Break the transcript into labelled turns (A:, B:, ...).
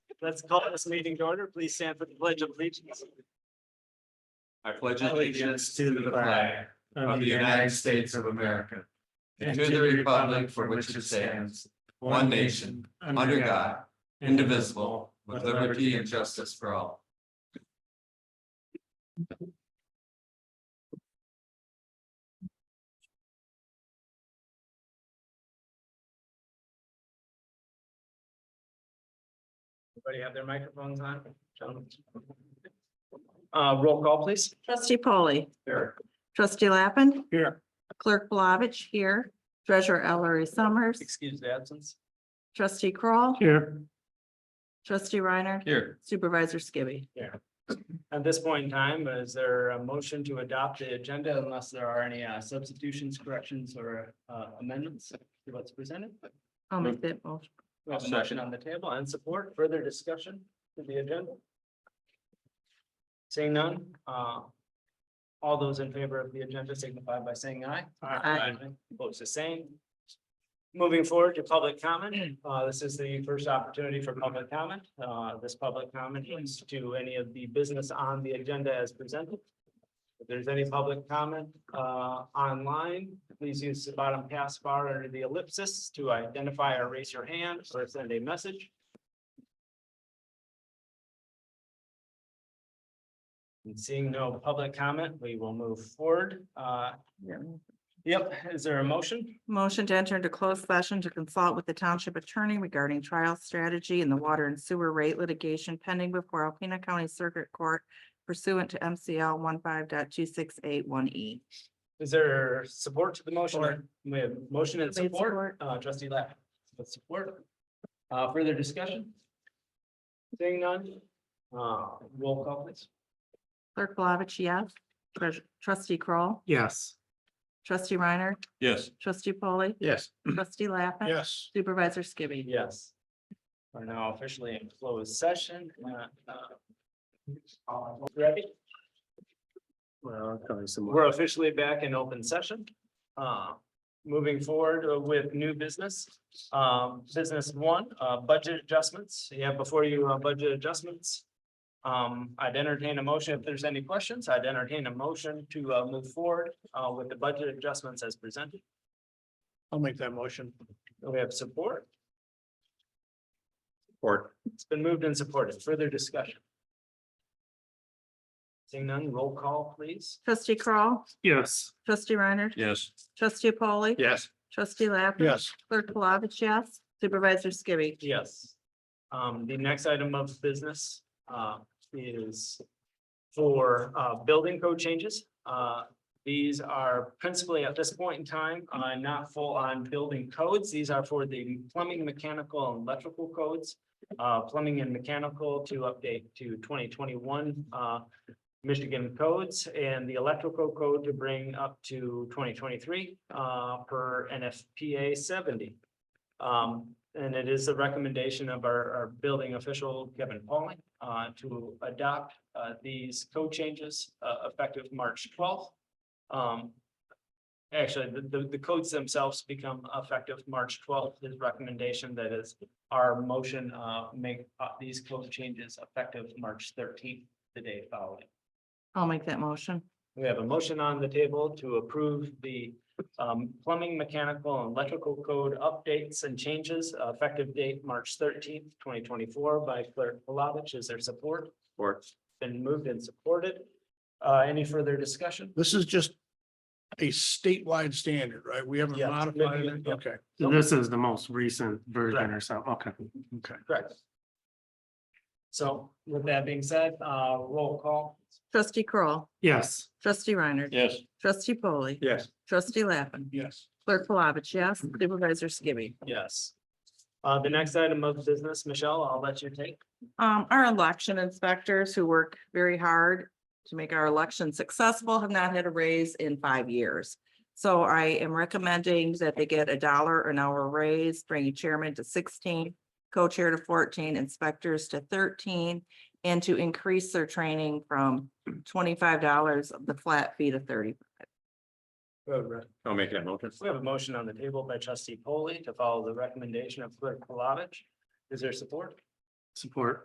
A: Let's call this meeting to order. Please stand for the pledge of allegiance.
B: I pledge allegiance to the flag of the United States of America and to the republic for which it stands, one nation, under God, indivisible, with liberty and justice for all.
A: Everybody have their microphones on? Gentlemen. Uh, roll call, please.
C: Trustee Polly.
A: Here.
C: Trustee Lappin.
A: Here.
C: Clerk Blavich here. Treasurer Ellery Summers.
A: Excuse the absence.
C: Trustee Kroll,
A: Here.
C: Trustee Reiner.
B: Here.
C: Supervisor Skibby.
A: At this point in time, is there a motion to adopt the agenda unless there are any uh, substitutions, corrections, or uh, amendments to what's presented?
C: I'll make that motion.
A: We have a motion on the table and support, further discussion to the agenda? Seeing none, uh. All those in favor of the agenda signify by saying aye.
C: Aye.
A: Opposed the same. Moving forward to public comment, uh, this is the first opportunity for public comment, uh, this public comment is to any of the business on the agenda as presented. If there's any public comment, uh, online, please use the bottom pass bar under the ellipsis to identify or raise your hand or send a message. And seeing no public comment, we will move forward. Uh, yep, is there a motion?
C: Motion to enter into closed session to consult with the township attorney regarding trial strategy in the water and sewer rate litigation pending before Alpena County Circuit Court pursuant to MCL one E.
A: Is there support to the motion?
C: Support.
A: We have motion and
C: Made
A: support,
C: support.
A: uh, trustee Lapp, with support. Uh, further discussion? Seeing none, uh, roll call please.
C: Clerk Blavich, yes. Treas- Trustee Kroll,
D: Yes.
C: Trustee Reiner,
B: Yes.
C: Trustee Polly,
D: Yes.
C: Trustee Lappin.
D: Yes.
C: Supervisor Skibby.
A: Yes. We're now officially in closed session. uh, uh, Ready?
D: Well, probably some more.
A: We're officially back in open session. Uh, Moving forward uh, with new business, um, business one, uh, budget adjustments. You have before you uh, budget adjustments. Um, I'd entertain a motion if there's any questions. I'd entertain a motion to uh, move forward uh, with the budget adjustments as presented.
D: I'll make that motion.
A: We have support. Support. It's been moved and supported. Further discussion? Seeing none, roll call, please.
C: Trustee Crawl,
D: Yes.
C: trustee Reiner,
B: Yes.
C: trustee Polly.
D: Yes.
C: Trustee Lappin.
D: Yes.
C: Clerk Palovich, yes. Supervisor Skibby.
A: Yes. Um, the next item of business, uh, is for, uh, building code changes. Uh, these are principally at this point in time, uh, not full on building codes. These are for the plumbing, mechanical, and electrical codes. Uh, plumbing and mechanical to update to twenty twenty-one, uh, Michigan codes and the electrical code to bring up to twenty twenty-three, uh, per NFPA seventy. Um, and it is the recommendation of our, our building official, Kevin Pauling, uh, to adopt, uh, these code changes, uh, effective March twelfth. Um, actually, the, the, the codes themselves become effective March twelfth, his recommendation that is our motion, uh, make, uh, these code changes effective March thirteenth, the day following.
C: I'll make that motion.
A: We have a motion on the table to approve the um, plumbing, mechanical, and electrical code updates and changes uh, effective date March thirteenth, twenty twenty-four by clerk Palovich. Is there support? Support. Been moved and supported. Uh, Any further discussion?
E: This is just a statewide standard, right? We haven't
A: Yeah.
E: modified it.
A: Yeah.
E: Okay,
D: This is the most recent version or something. Okay.
E: okay.
A: Correct. So with that being said, uh, roll call.
C: Trustee Crawl,
D: Yes.
C: trustee Reiner.
B: Yes.
C: Trustee Polly.
D: Yes.
C: Trustee Lappin.
E: Yes.
C: Clerk Palovich, yes. Supervisor Skibby.
A: Yes. Uh, The next item of business, Michelle, I'll let you take.
C: Um, our election inspectors who work very hard to make our election successful have not had a raise in five years. So I am recommending that they get a dollar an hour raise, bringing chairman to sixteen, co-chair to fourteen, inspectors to thirteen, and to increase their training from twenty-five dollars of the flat fee to thirty.
B: I'll make that motion.
A: We have a motion on the table by trustee Polly to follow the recommendation of clerk Palovich. Is there support?
D: Support.